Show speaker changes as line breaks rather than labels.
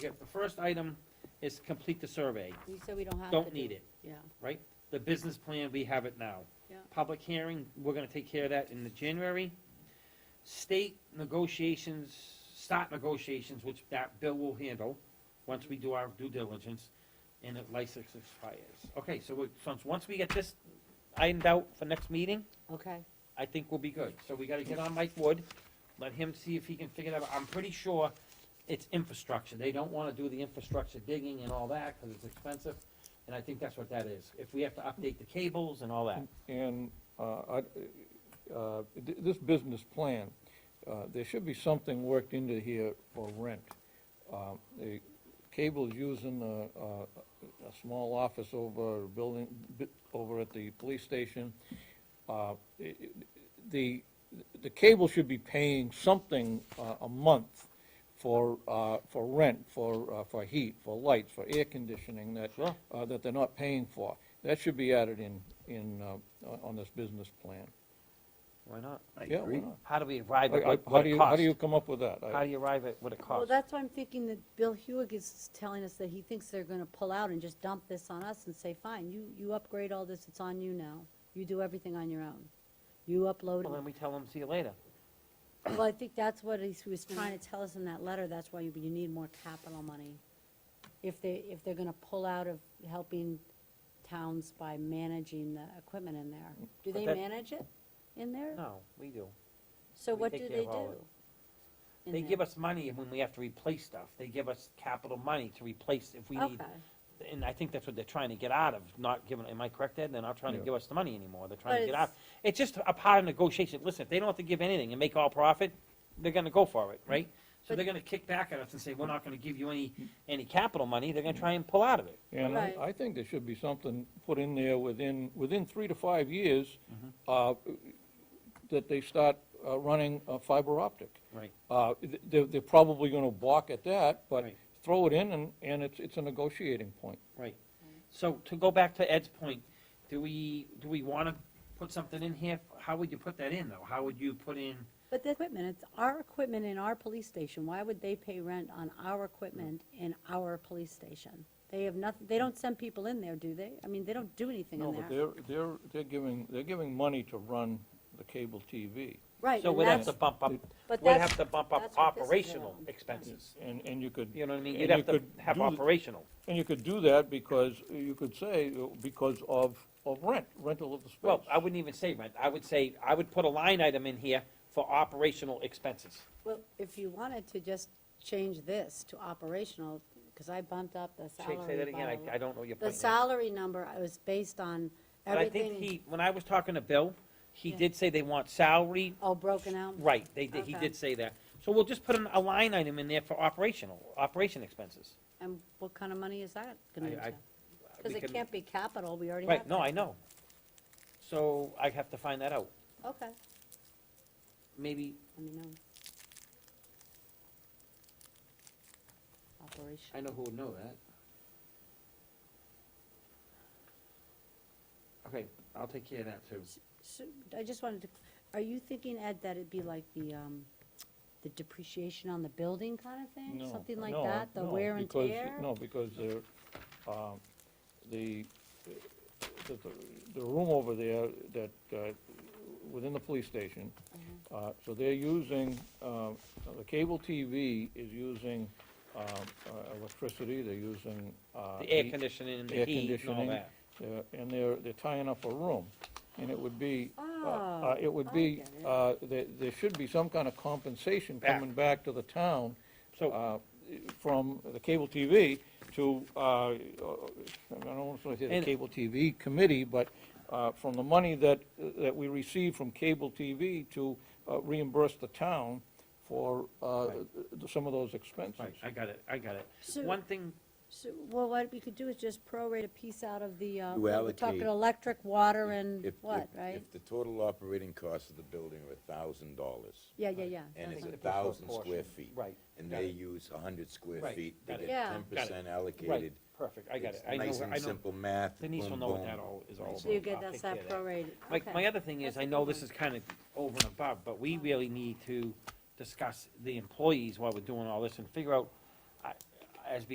If the first item is complete the survey,
You said we don't have to
don't need
do-
it,
Yeah,
right? The business plan, we have it now.
Yeah.
Public hearing, we're gonna take care of that in the January. State negotiations, start negotiations, which that bill will handle, once we do our due diligence, and the license expires. Okay, so, we- so once we get this ironed out for next meeting,
okay,
I think we'll be good. So we gotta get on Mike Wood, let him see if he can figure that out. I'm pretty sure it's infrastructure. They don't wanna do the infrastructure digging and all that, cause it's expensive. And I think that's what that is. If we have to update the cables and all that.
And uh, I- uh, th- this business plan, uh, there should be something worked into here for rent. Uh, The cable's using a- a a small office over a building, bi- over at the police station. Uh, it- it- The, the cable should be paying something uh, a month for, uh, for rent, for, uh, for heat, for lights, for air conditioning that,
Sure.
uh, that they're not paying for. That should be added in, in, uh, on this business plan.
Why not?
Yeah, why not?
How do we arrive at
I- I-
what,
How
what
do
it
you, how
costs?
do you come up with that? I-
How do you arrive at what it
well,
costs?
that's why I'm thinking that Bill Hewig is telling us that he thinks they're gonna pull out and just dump this on us and say, fine, you, you upgrade all this, it's on you now, you do everything on your own, you upload
Well, then
it.
we tell them, see you later.
Well, I think that's what he's- he was trying to tell us in that letter, that's why you, you need more capital money. If they, if they're gonna pull out of helping towns by managing the equipment in there, do
But
they
that-
manage it in there?
No, we do.
So
We
what
take
do
care
they
of all
do?
of it.
in
They
there?
give us money when we have to replace stuff. They give us capital money to replace if we need
Okay.
and I think that's what they're trying to get out of, not giving, am I correct, Ed? They're not trying to
Yeah.
give us the money anymore, they're trying to
But
get
it's-
out. It's just a part of negotiation, listen, if they don't have to give anything and make all profit, they're gonna go for it, right? So
But-
they're gonna kick back at us and say, we're not gonna give you any, any capital money, they're gonna try and pull out of it.
And I,
Right.
I think there should be something put in there within, within three to five years, uh, that they start uh, running uh, fiber optic.
Right.
Uh, th- They're, they're probably going to balk at that, but
Right.
throw it in, and, and it's, it's a negotiating point.
Right. So to go back to Ed's point, do we, do we wanna put something in here? How would you put that in, though? How would you put in,
But the equipment, it's our equipment in our police station. Why would they pay rent on our equipment in our police station? They have nothing, they don't send people in there, do they? I mean, they don't do anything
No,
in
but
there.
they're, they're, they're giving, they're giving money to run the cable TV.
Right,
so
and
we'd have
that's,
to bump up,
but
we'd
that's,
have to bump up
that's what this is
operational
about.
expenses.
And, and you could.
You know what I mean?
and
You'd
you
have to
could
have
do th-
operational.
And you could do that because, you could say, uh, because of, of rent, rental of the space.
Well, I wouldn't even say rent, I would say, I would put a line item in here for operational expenses.
well, if you wanted to just change this to operational, because I bumped up the
Say- Say that
salary
again,
by-
I, I don't know your
The
point. now.
salary number, I was based on
But I think
everything,
he, when I was talking to Bill, he
Yeah.
did say they want salary,
all broken out.
right, they, did- he
Okay.
did say that. So we'll just put an- a line item in there for operational, operation expenses.
And what kind of money is that
I-
gonna
I-
be? Because
We
it
can-
can't be capital, we already have.
Right, no, I know. So I have to find that out.
capital. Okay,
Maybe,
let me know. Operation.
I know who would know that. Okay, I'll take care of that too.
So, I just wanted to, are you thinking, Ed, that it'd be like the, um, the depreciation on the building kind of thing?
No,
Something like
no,
that, the
no,
wear and
because-
tear?
No, because they're, um, the, the, the- the room over there that, uh, within the police station,
Uh-huh.
uh, so they're using, um, the cable TV is using um, uh, electricity, they're using. uh,
The air
heat,
conditioning and the
air
heat and all
conditioning,
that.
uh, And they're, they're tying up a room, and it would be, uh,
Oh,
uh, it
I
would be,
get it.
uh, there, there should be some kind of compensation
Back.
coming back to the town
So
uh, from the cable TV to, uh, I don't want to say the
And-
cable TV committee, but uh, from the money that, that we receive from cable TV to uh, reimburse the town for uh, th- some of those
Right,
expenses.
I got it, I got it.
So-
One thing,
So, well, what we could do is just prorate a piece out of the, uh,
You
we're
allocate-
talking electric, water, and
If-
what,
if-
right?
If the total operating cost of the building are a thousand dollars,
Yeah, yeah, yeah.
and
that's
it's a
That's
what-
what-
thousand square
proportion.
feet.
Right,
And
got
they
it.
use a hundred square
Right,
feet,
got
they
it.
get
Yeah.
ten percent
right,
allocated.
perfect, I got
It's
it, I know,
Nice
I
and
know,
simple math.
Denise will
boom,
know what
boom.
that all is all about.
So you get
I'll take
that's
care
that
of that.
prorated,
My,
okay.
my other thing is,
That's
I
a
know
good
this
one.
is kind of over and above, but we really need to discuss the employees while we're doing all this and figure out, I, as